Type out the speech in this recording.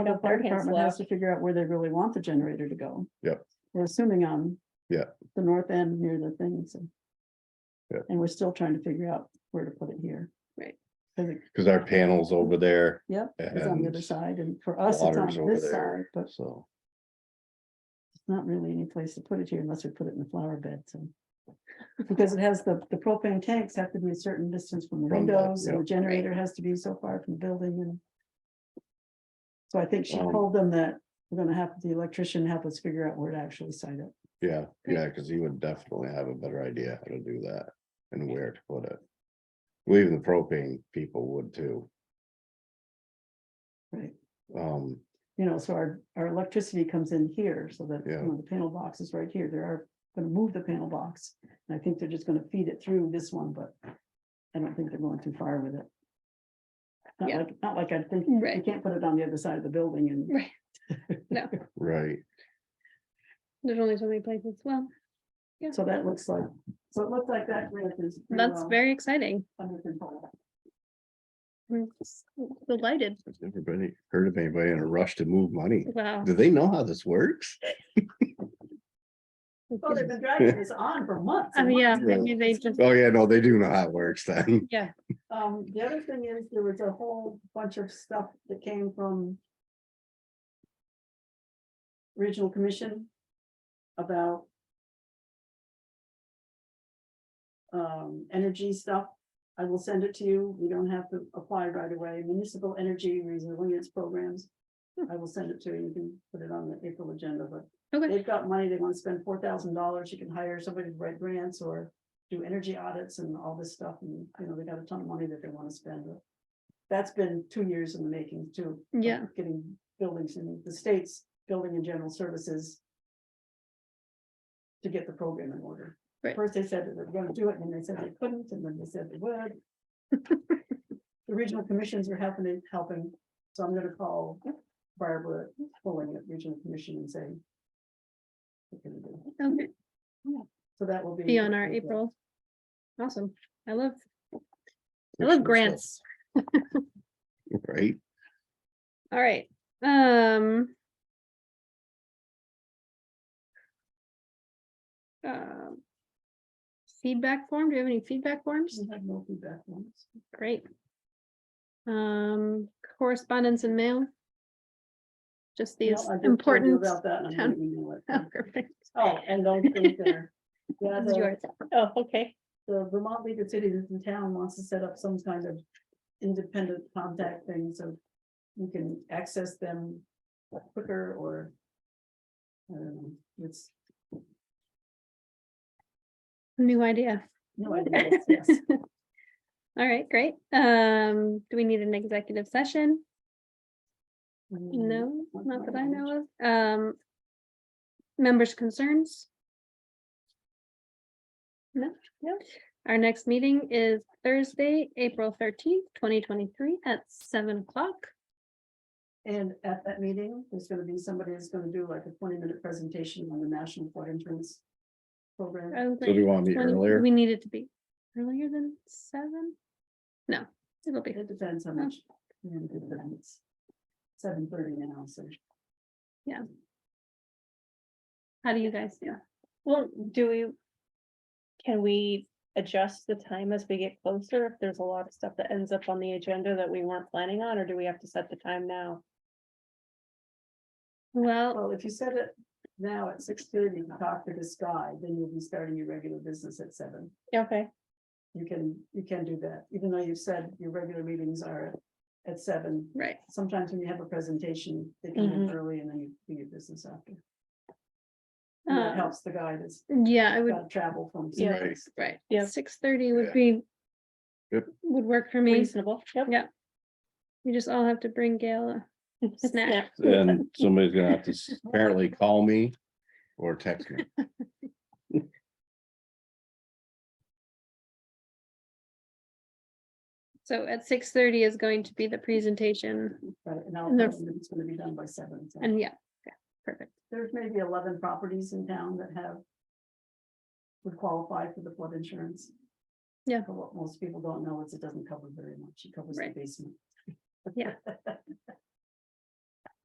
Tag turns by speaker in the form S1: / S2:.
S1: The
S2: fire
S1: fire
S2: department
S1: department
S2: slow.
S1: has to figure out where they really want the generator to go.
S3: Yep.
S1: We're assuming on.
S3: Yeah.
S1: The north end near the thing, so.
S3: Yeah.
S1: And we're still trying to figure out where to put it here.
S2: Right.
S1: Cause it,
S3: Cause our panels over there,
S1: yep, it's on the other
S3: And
S1: side and for us, it's on
S3: water's over
S1: this side,
S3: there.
S1: but it's
S3: so.
S1: not really any place to put it here unless we put it in the flower bed, so. Because it has the, the propane tanks have to be a certain distance from the
S3: From the-
S1: windows and
S3: yeah.
S1: the generator has to be so far from the building and. So I think she
S3: Um,
S1: told them that we're gonna have the electrician help us figure out where to actually site it.
S3: Yeah, yeah, cause he would definitely have a better idea how to do that and where to put it. Well, even the propane people would too.
S1: Right.
S3: Um,
S1: you know, so our, our electricity comes in here so that, you
S3: Yeah.
S1: know, the panel box is right here. They are gonna move the panel box. And I think they're just gonna feed it through this one, but I don't think they're going too far with it. Not
S2: Yeah.
S1: like, not like I think, you
S2: Right.
S1: can't put it on the other side of the building and
S2: Right,
S3: right,
S2: there's only so many places, well,
S1: so that looks like, so it looks like that grant is. pretty
S2: that's
S1: well
S2: very exciting.
S1: Under control.
S2: We're s- Delighted,
S3: everybody heard of anybody in a rush to move money.
S2: wow.
S3: Do they know how this works?
S1: Well, Oh, they've been dragging this on for months.
S2: Oh,
S1: and
S2: yeah,
S1: months.
S2: maybe they just,
S3: Oh, yeah, no, they do know how it works then.
S2: yeah,
S1: Um, the other thing is there was a whole bunch of stuff that came from. Regional Commission about. Um, energy stuff. I will send it to you. You don't have to apply right away. Municipal Energy Resilience Programs. I will send it to you. You can put it on the April agenda, but
S2: okay,
S1: they've got money, they want to spend four thousand dollars, you can hire somebody to write grants or do energy audits and all this stuff, and, you know, they got a ton of money that they want to spend. That's been two years in the making too. of
S2: Yeah.
S1: Getting buildings in the states, building and general services. To get the program in order.
S2: Right.
S1: First they said that they were gonna do it, and then they said they couldn't, and then they said they would. The regional commissions were happening, helping, so I'm gonna call Barbara Pulling at Regional Commission and say. "What can we do?"
S2: okay,
S1: So that will be.
S2: be on our April. Awesome, I love, I love grants.
S3: Right?
S2: All right, um. um, Feedback form, do you have any feedback forms?
S1: We have no feedback on this.
S2: Great. Um, correspondence and mail? Just
S1: No, I
S2: these
S1: just told you
S2: important.
S1: About that. and I'm
S2: town-
S1: gonna email it.
S2: Oh, perfect.
S1: Oh, and those things there. Yeah,
S2: This is
S1: the-
S2: yours. Oh, okay.
S1: the Vermont League of Cities in town wants to set up some kind of independent contact thing, so you can access them quicker or I don't know, it's
S2: New idea.
S1: no idea. it's- yes.
S2: All right, great. Um, do we need an executive session? No,
S1: not
S2: not
S1: that
S2: that I
S1: much.
S2: know of. Um. Members' concerns? No, no. Our next meeting is Thursday, April thirteenth, twenty twenty-three at seven o'clock.
S1: And at that meeting, there's gonna be somebody that's gonna do like a twenty minute presentation on the National Flood Insurance Program.
S2: Oh,
S3: So do
S2: great.
S3: you want me
S2: 20
S3: earlier?
S2: We need it to be earlier than seven? No, it'll be,
S1: It depends how much. you know, it depends. Seven thirty now, so.
S2: how do you guys do?
S4: Well, do we? Can we adjust the time as we get closer? If there's a lot of stuff that ends up on the agenda that we weren't planning on, or do we have to set the time now?
S2: Well,
S1: Well, if you set it now at six thirty, you talk to this guy, then you'll be starting your regular business at seven.
S4: Okay,
S1: You can, you can do that, even though you've said your regular meetings are at seven.
S2: right,
S1: Sometimes when you have a presentation, they come in
S2: Mm-hmm.
S4: Mhm.
S1: early and then you do your business after. And
S2: Uh,
S1: that helps the guy that's
S2: yeah, I would,
S1: got travel from.
S4: Yeah.
S3: Right.
S1: someplace.
S2: right,
S4: Yeah.
S2: six thirty
S3: Yeah.
S2: would be.
S3: Yep.
S2: Would work for me,
S4: reasonable. Yep.
S2: Yeah. you just all have to bring Gail a snack,
S3: And somebody's gonna have to s- apparently call me or text me.
S2: so at six thirty is going to be the presentation,
S1: Right, and I'll,
S2: And they're-
S1: it's gonna be done by seven. so.
S2: and yeah, yeah, perfect,
S1: There's maybe eleven properties in town that have. Would qualify for the flood insurance.
S2: Yeah.
S1: But what most people don't know is it doesn't cover very much. It covers the
S2: Right.
S1: basement.
S2: Yeah.